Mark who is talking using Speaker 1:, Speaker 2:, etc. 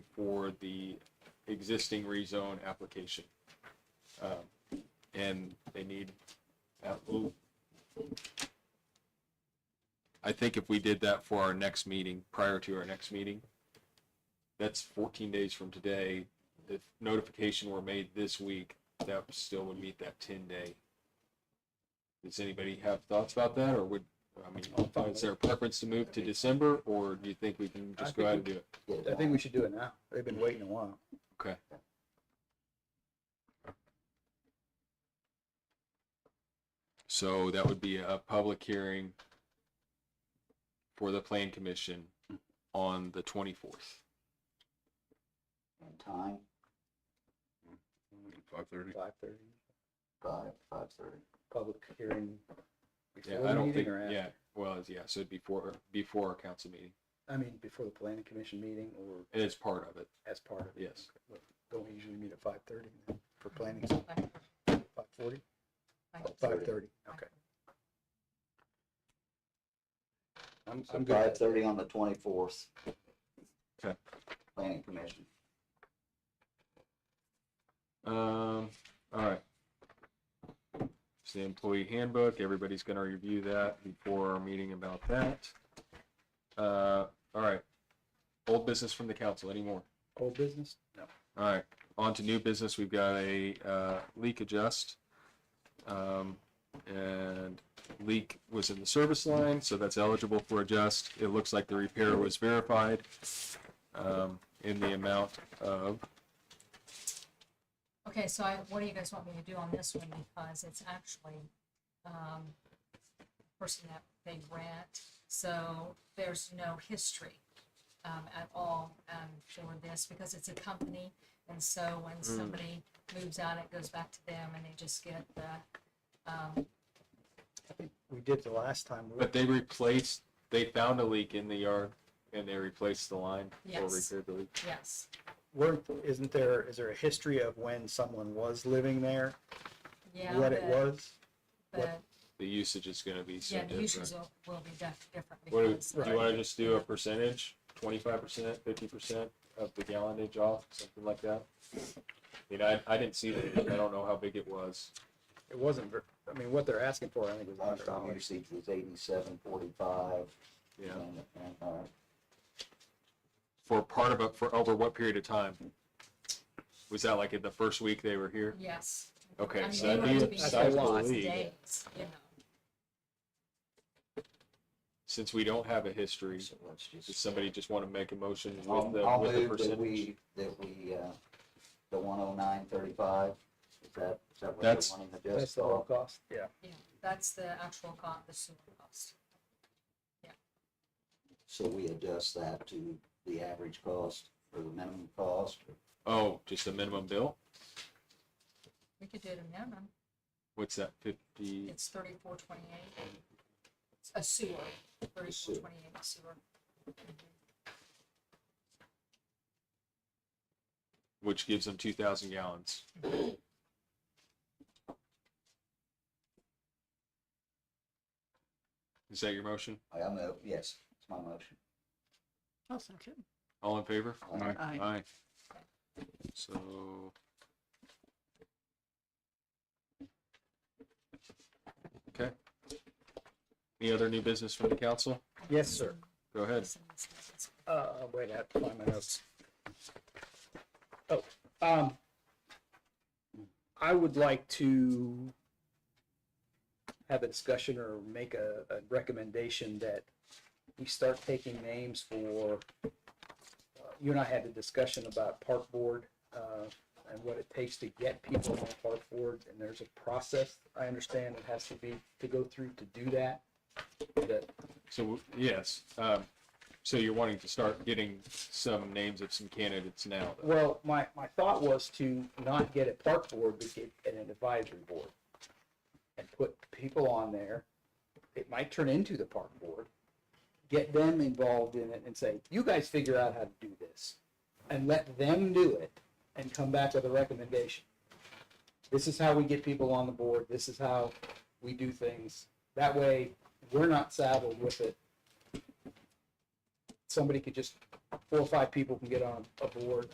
Speaker 1: for the existing rezone application. Um, And they need, uh, ooh. I think if we did that for our next meeting, prior to our next meeting, that's fourteen days from today. If notification were made this week, that still would meet that ten day. Does anybody have thoughts about that, or would, I mean, is there a preference to move to December, or do you think we can just go ahead and do it?
Speaker 2: I think we should do it now. They've been waiting a while.
Speaker 1: Okay. So that would be a public hearing for the plan commission on the twenty-fourth.
Speaker 3: And time,
Speaker 4: Five thirty.
Speaker 2: Five thirty,
Speaker 3: five, five thirty.
Speaker 2: public hearing.
Speaker 1: Yeah,
Speaker 2: before
Speaker 1: I
Speaker 2: the
Speaker 1: don't
Speaker 2: meeting
Speaker 1: think,
Speaker 2: or after?
Speaker 1: yeah, well, it's- yeah, so it'd be before, before our council meeting,
Speaker 2: I mean, before the planning commission meeting or
Speaker 1: and it's part of it,
Speaker 2: as part of it.
Speaker 1: yes.
Speaker 2: Don't we usually meet at five thirty for planning?
Speaker 5: Five.
Speaker 2: Five forty? Five thirty, okay. I'm,
Speaker 3: So
Speaker 2: I'm good.
Speaker 3: five thirty on the twenty-fourth.
Speaker 1: Okay.
Speaker 3: Planning commission.
Speaker 1: Um, all right. It's the employee handbook. Everybody's gonna review that before our meeting about that. Uh, all right. Old business from the council anymore.
Speaker 2: Old business? No.
Speaker 1: All right, on to new business. We've got a uh, leak adjust. Um, and leak was in the service line, so that's eligible for adjust. It looks like the repair was verified um, in the amount of
Speaker 5: Okay, so I, what do you guys want me to do on this one, because it's actually, um, person that they rent, so there's no history, um, at all, um, for this, because it's a company, and so
Speaker 1: Hmm.
Speaker 5: when somebody moves out, it goes back to them, and they just get the, um,
Speaker 2: I think we did the last time. We
Speaker 1: But they replaced, they found a leak in the yard and they replaced the line or
Speaker 5: Yes.
Speaker 1: repaired the leak.
Speaker 5: yes,
Speaker 2: weren't, isn't there, is there a history of when someone was living there?
Speaker 5: yeah.
Speaker 2: What it
Speaker 5: but-
Speaker 2: was?
Speaker 5: But,
Speaker 1: The usage is gonna be so
Speaker 5: yeah, the
Speaker 1: different.
Speaker 5: uses will, will be def- different,
Speaker 1: What, do
Speaker 5: because,
Speaker 1: do you wanna just do a percentage, twenty-five percent, fifty percent of the gallonage off, something like that? I mean, I, I didn't see the leak. I don't know how big it was.
Speaker 2: It wasn't, ver- I mean, what they're asking for, I think, was
Speaker 3: Last
Speaker 2: under a
Speaker 3: time we
Speaker 2: hundred.
Speaker 3: received was eighty-seven forty-five.
Speaker 1: Yeah.
Speaker 3: And, and, uh,
Speaker 1: For part of it, for over what period of time? Was that like in the first week they were here?
Speaker 5: yes. I
Speaker 1: Okay,
Speaker 5: mean,
Speaker 1: so
Speaker 5: they
Speaker 1: that'd be
Speaker 5: would have to
Speaker 1: a
Speaker 5: be
Speaker 2: that's a
Speaker 1: sizable
Speaker 2: lot.
Speaker 5: here
Speaker 1: leak.
Speaker 5: days, you know.
Speaker 1: Since we don't have a history,
Speaker 3: so let's
Speaker 1: does
Speaker 3: just,
Speaker 1: somebody just wanna make a motion with
Speaker 3: I'll, I'll
Speaker 1: the, with the
Speaker 3: move that
Speaker 1: percentage?
Speaker 3: we, that we, uh, the one oh nine thirty-five. Is that, is that what
Speaker 1: That's-
Speaker 3: you're wanting to
Speaker 2: That's
Speaker 3: just
Speaker 2: the whole
Speaker 3: off?
Speaker 2: cost? Yeah.
Speaker 5: Yeah, that's the actual cost, the sewer cost.
Speaker 3: So we adjust that to the average cost or the minimum cost?
Speaker 1: Oh, just a minimum bill?
Speaker 5: We could do it a minimum,
Speaker 1: What's that, fifty?
Speaker 5: it's thirty-four twenty-eight. A sewer, thirty-four twenty-eight sewer.
Speaker 1: Which gives them two thousand gallons. Is that your motion?
Speaker 3: I move, yes, it's my motion.
Speaker 6: I'll second.
Speaker 1: All in favor?
Speaker 3: Aye.
Speaker 6: Aye.
Speaker 1: Aye. So. Okay. Any other new business from the council?
Speaker 2: Yes, sir.
Speaker 1: Go ahead.
Speaker 2: Uh, wait, I have to find my notes. Oh, um, I would like to have a discussion or make a, a recommendation that we start taking names for, uh, you and I had a discussion about park board, uh, and what it takes to get people on park board, and there's a process, I understand, it has to be, to go through to do that. That,
Speaker 1: So, yes, um, so you're wanting to start getting some names of some candidates now? though?
Speaker 2: Well, my, my thought was to not get a park board, but get an advisory board. And put people on there, it might turn into the park board. Get them involved in it and say, you guys figure out how to do this. And let them do it and come back with a recommendation. This is how we get people on the board, this is how we do things. That way, we're not saddled with it. Somebody could just, four or five people can get on a board,